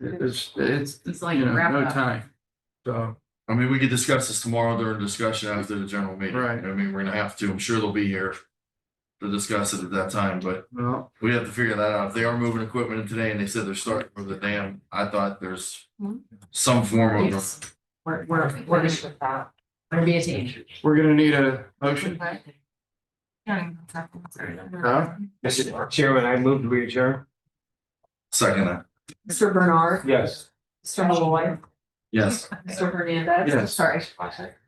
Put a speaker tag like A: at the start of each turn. A: It's, it's,
B: It's like
A: you know,
B: wrap
A: no
B: up.
A: time. So,
C: I mean, we could discuss this tomorrow during discussion after the general meeting.
A: Right.
C: I mean, we're gonna have to, I'm sure they'll be here. To discuss it at that time, but
A: well,
C: we have to figure that out. If they are moving equipment in today and they said they're starting for the dam, I thought there's.
B: Hmm.
C: Some form of,
B: Yes. We're, we're, we're just with that. We're be a team.
A: we're gonna need a motion. Huh?
B: Mr.
D: Mr. Chairman, I move to adjourn.
C: second, uh, that.
B: Bernard,
D: Yes.
B: Mr. Malloy,
C: yes.
B: Mr. Hernandez.
A: Yes.
B: Sorry, I should watch it.